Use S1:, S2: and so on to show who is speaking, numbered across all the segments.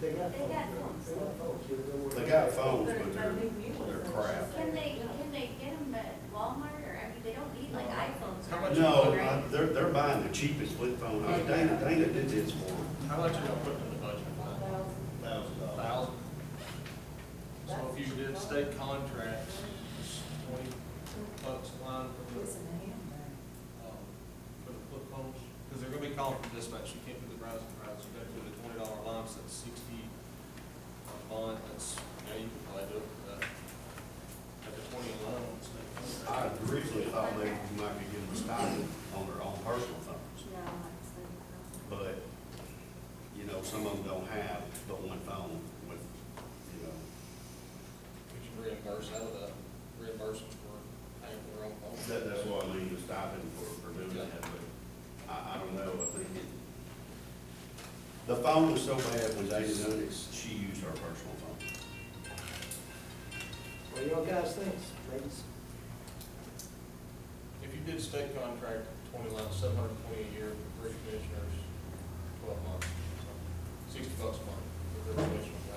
S1: They got phones.
S2: got
S1: phones.
S3: They got phones, but they're, they're crap.
S2: Can they, can they get them at Walmart or, I mean, they don't need like iPhones.
S4: How
S2: or
S4: much-
S3: No,
S2: anything, right?
S3: I- they're, they're buying the cheapest flip phone. I mean, Dana, Dana did this for them.
S4: How much are you putting in the budget?
S5: Thousand dollars.
S4: Thousand? So if you did state contracts, it's twenty bucks a line for the, um, for the flip phones? Because they're gonna be calling from dispatch, you can't do the browsing routes, you gotta do the twenty dollar line, so that's sixty a month, that's, yeah, you can probably do it for that. At the twenty line, on state
S3: I
S4: contract.
S3: originally thought they might be getting a stipend on their own personal phones,
S2: No, it's like,
S3: but, you know, some of them don't have but one phone with, you know,
S4: Could you reimburse out of that, reimburse them for paying for their own phone?
S3: that, that's why I need a stipend for, for doing that, but I, I don't know, I think it, the phone was so bad when Dana done it, she used her personal phone.
S1: What do y'all guys think, ladies?
S4: If you did state contract, twenty line, seven hundred and twenty a year, for three commissioners, twelve months, so sixty bucks a month for three commissioners,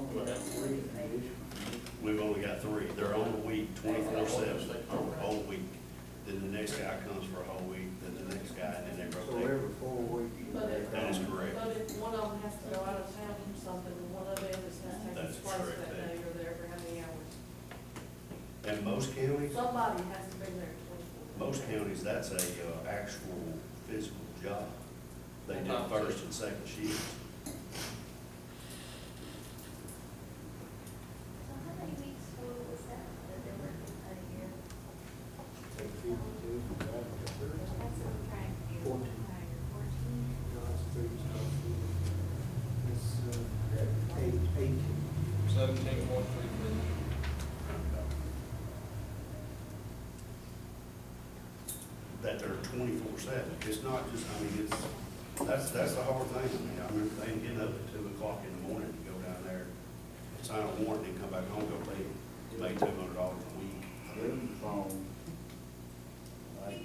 S1: We're
S4: out of town.
S1: going with that three of you.
S3: We've only got three. They're on a week, twenty-four seven, on a whole week. Then the next guy comes for a whole week, then the next guy, and then they
S1: So
S3: rotate.
S1: every four weeks. you
S6: But
S1: break
S6: it-
S3: That is
S1: down.
S3: correct.
S6: But if one of them has to go out of town and do something, and one of them is gonna take
S3: That's
S6: his place that
S3: correct, yeah.
S6: day or there for how many hours?
S3: And most counties,
S6: Somebody has to be there twenty-four.
S3: most counties, that's a, uh, actual physical job. They do first and second shift.
S2: So how many weeks total was that, that they were a year?
S1: Take fifty-two, divide it by thirty.
S2: That's what I'm trying to do.
S1: Fourteen.
S2: Fourteen.
S1: No, it's thirty, it's not forty. It's, uh, eight, eighteen.
S4: Seventeen, one, three, three.
S3: that they're twenty-four seven. It's not just, I mean, it's, that's, that's the hard thing. I mean, I remember they getting up at two o'clock in the morning to go down there, sign a warrant, and come back home, go pay, pay two hundred dollars a week.
S7: Green phone, like,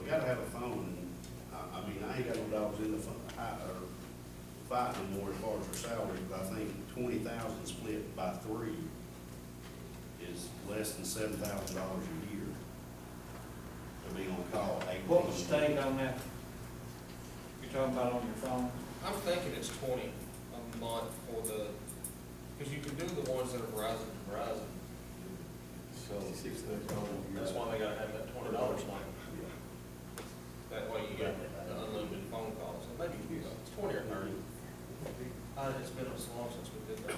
S3: We gotta have a phone, and, I, I mean, I ain't got no dogs in the phone, I, or fight no more as far as their salary, but I think twenty thousand split by three is less than seven thousand dollars a year. To be on call eight.
S7: what was stayed on that? You're talking about on your phone?
S4: I'm thinking it's twenty a month for the, because you can do the ones that are Verizon, to Verizon.
S5: So six thousand.
S4: That's why they gotta have that twenty dollars line.
S3: Yeah.
S4: That way you get the unlimited phone calls, and maybe you know, it's twenty or thirty. Uh, it's been so long since we did that.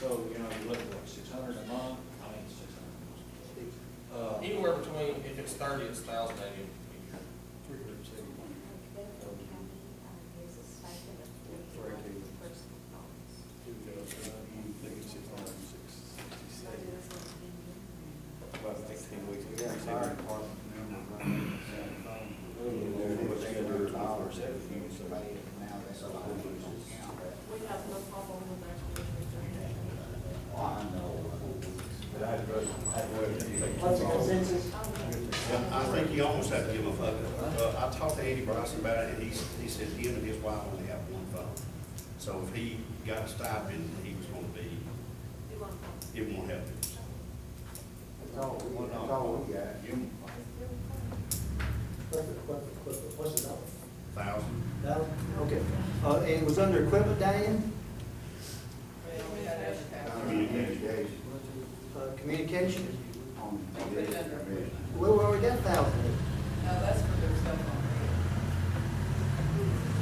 S7: So, you know, you look at six hundred a month, I mean, six hundred. Uh,
S4: Anywhere between, if it's thirty, it's thousand eighty a year.
S2: Fayetteville County, uh, gives a stipend of forty
S5: Fourteen.
S2: dollars per person. So it
S5: Sixty-six,
S2: is what we need.
S5: about sixteen weeks.
S7: we got a fire department, and they're running that phone.
S6: We have no problem with that. commissioner.
S7: I know. But I'd rather, I'd
S1: What's the consensus?
S3: Yeah, I think you almost have to give a fuck. Uh, I talked to Andy Bryson about it, and he's, he said him and his wife only have one phone. So if he got a stipend, he was gonna be,
S6: You want to-
S3: it won't help him.
S1: That's all, we- that's all we got. What's the, what's the, what's the- what's the dollar?
S3: Thousand?
S1: Dollar? Okay. Uh, and it was under equipment, Diane? Uh, communication? Well, we already got thousand.
S8: No, that's for their cell phone.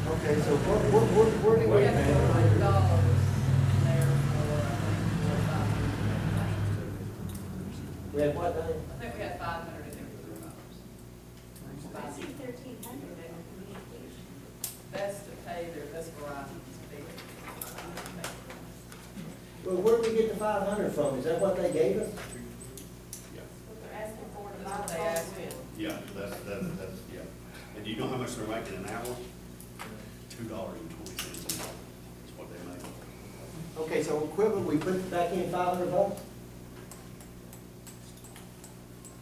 S1: Okay, so what, what, what, where do we?
S8: We have forty dollars in there for, I think, four or five hundred.
S1: We have what, Diane?
S8: I think we had five hundred in there for their phones.
S2: I see thirteen hundred in communication.
S8: That's to pay their, that's Verizon's fee.
S1: Well, where did we get the five hundred from? Is that what they gave us?
S3: Yeah.
S2: What they're asking for to
S8: That's
S2: buy
S8: what
S2: the
S8: they asked
S2: phone.
S8: for.
S3: Yeah, that's, that's, that's, yeah. And do you know how much they're making an hour? Two dollars and twenty cents an hour is what they make.
S1: Okay, so equipment, we put back in five hundred bucks?